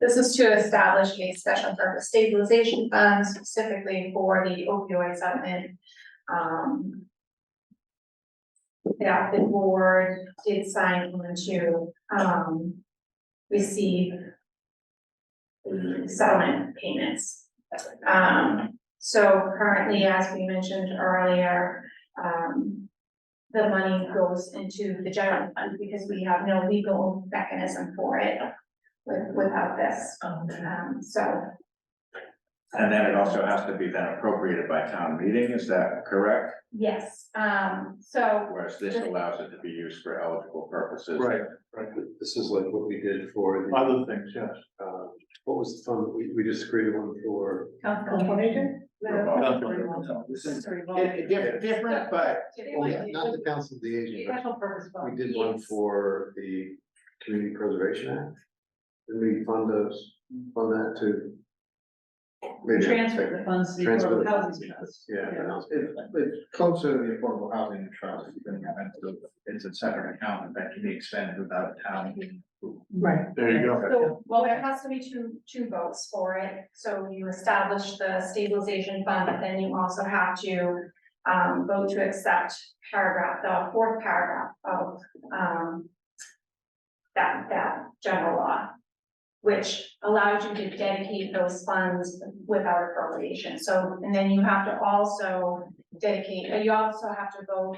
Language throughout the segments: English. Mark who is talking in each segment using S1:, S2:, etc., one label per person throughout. S1: This is to establish a special purpose stabilization fund specifically for the opioid settlement. Um. That the board did sign on to, um, receive. The settlement payments. Um, so currently, as we mentioned earlier, um, the money goes into the general fund because we have no legal mechanism for it with, without this,
S2: Oh,
S1: um, so.
S3: And then it also has to be then appropriated by town meeting, is that correct?
S1: Yes, um, so,
S3: Whereas this allows it to be used for eligible purposes.
S4: Right, right, this is like what we did for the,
S5: Other things, yes.
S4: uh, what was the fund, we, we just created one for,
S1: the.
S2: Different, different, but
S4: oh yeah, not the council of the aging, but
S2: special purpose
S4: we did one for the Community Preservation Act. Did we fund those, fund that too? Maybe I
S2: Transfer
S4: think-
S2: the funds to the
S4: Transfer
S2: Affordable
S4: the
S2: housing trust.
S4: Yeah, that was-
S3: It's, it's closer to the affordable housing trust, than that. It's a- it's a separate account that can be expended without town meeting. approval.
S2: Right.
S5: There you go.
S1: So, well, there has to be two, two votes for it, so you establish the stabilization fund, but then you also have to. Um, vote to accept paragraph, the fourth paragraph of, um. That, that general law. Which allows you to dedicate those funds without appropriation, so, and then you have to also dedicate, and you also have to vote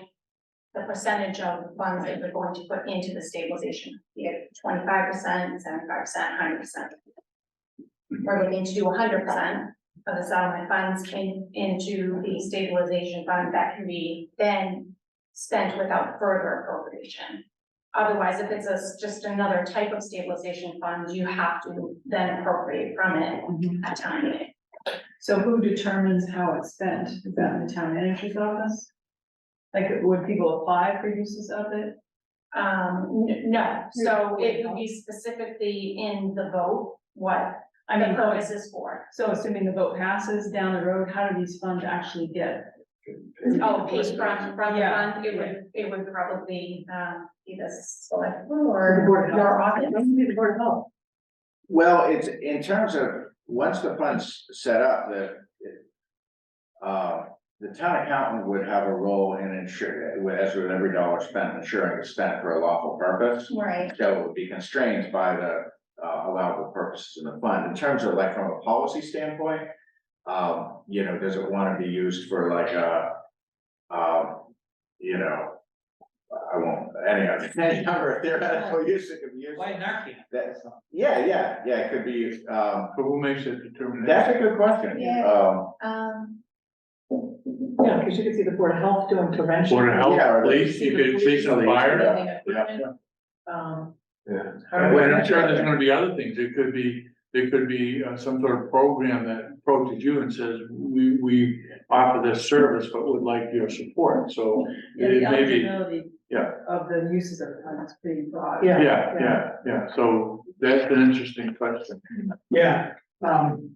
S1: the percentage of funds that you're going to put into the stabilization, be it twenty-five percent, seventy-five percent, hundred percent. We're looking to do hundred percent of the settlement funds in, into the stabilization fund that can be then spent without further appropriation. Otherwise, if it's a s- just another type of stabilization fund, you have to then appropriate from it
S2: Mhm.
S1: at time meeting.
S2: So who determines how it's spent? Is that in the town manager's office? Like, would people apply for uses of it?
S1: Um, n- no, so it would be specifically in the vote, what
S2: I
S1: the
S2: mean,
S1: purpose is for.
S2: so assuming the vote passes down the road, how do these funds actually get?
S1: Oh, paid from, from the
S2: Yeah.
S1: fund, it would, it would probably, um, be the select
S2: Or the
S1: board or
S2: Board of Health?
S1: your office.
S2: Maybe the Board of Health.
S3: Well, it's, in terms of, once the fund's set up, the. Uh, the town accountant would have a role in ensuring, as with every dollar spent, ensuring it's spent for a lawful purpose.
S1: Right,
S3: that would be constrained by the uh allowable purposes in the fund. In terms of like from a policy standpoint, um, you know, does it want to be used for like a um, you know, I won't, any other, any number of theoretical use it could be used. That's, yeah, yeah, yeah, it could be, used, um,
S5: But who makes that determination?
S3: that's a good question.
S1: Yeah.
S3: Um,
S1: um,
S2: Yeah, because you could see the Board of Health doing prevention.
S5: Board of
S3: Yeah, or
S5: Health,
S3: the-
S5: police, you could see some fire.
S2: Fire.
S3: yeah.
S2: Um,
S4: yeah,
S5: And I'm sure there's gonna be other things. It could be, there could be uh, some sort of program that approaches you and says, we, we offer this service, but would like your support. So,
S2: yeah, the
S5: It may be-
S2: eligibility
S5: yeah.
S2: Of the uses of the fund is pretty broad.
S6: Yeah.
S5: yeah, yeah, yeah. So that's an interesting question.
S6: Yeah, um,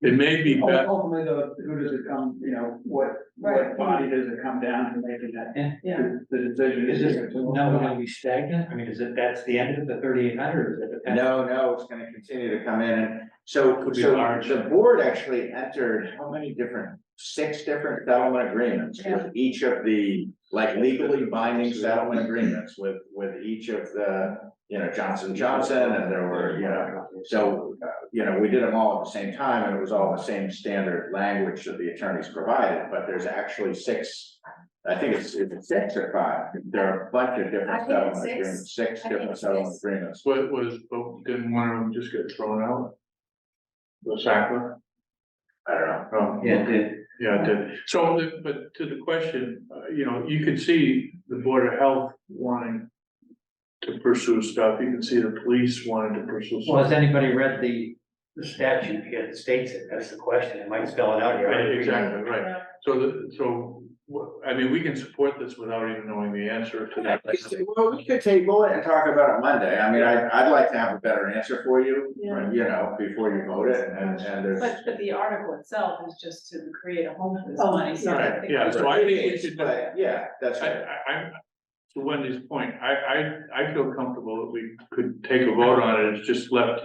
S5: It may be
S6: ul-
S5: best,
S6: ultimately, though, who does it come, you know, what,
S2: Right.
S6: what body does it come down to making that,
S2: Yeah.
S6: the the decision?
S7: Is this now gonna be stagnant? I mean, is it, that's the end of the thirty-eight hundred, is it?
S3: No, no, it's gonna continue to come in and so
S5: Could be
S3: so
S5: large.
S3: the board actually entered how many different? Six different settlement agreements with each of the like legally binding settlement agreements with with each of the. You know, Johnson Johnson and there were, you know, so, uh, you know, we did them all at the same time and it was all the same standard language that the attorneys provided, but there's actually six. I think it's it's six or five, there are a bunch of
S1: I
S3: different
S1: think it's
S3: settlement
S1: six.
S3: agreements, six
S1: I think
S3: different
S1: it's
S3: settlement
S1: six.
S3: agreements.
S5: what was, but didn't one of them just get thrown out? The Sackler?
S3: I don't know.
S5: Um,
S7: Yeah, did,
S5: Yeah, it did. So, the- but to the question, uh, you know, you could see the Board of Health wanting to pursue stuff. You can see the police wanting to pursue
S7: well,
S5: stuff.
S7: has anybody read the the statute here that states it? That's the question. It might spell it out here.
S5: Right, exactly, right. So, the- so, wh- I mean, we can support this without even knowing the answer to that.
S3: Well, we could table it and talk about it Monday. I mean, I, I'd like to have a better answer for you,
S2: Yeah.
S3: you know, before you vote it and, and there's.
S2: But, but the article itself is just to create a home for this money, so I
S5: Right,
S2: think.
S5: yeah, so I think we should, I,
S3: But, yeah, that's right.
S5: I, I'm, to Wendy's point, I, I, I feel comfortable that we could take a vote on it, it's just left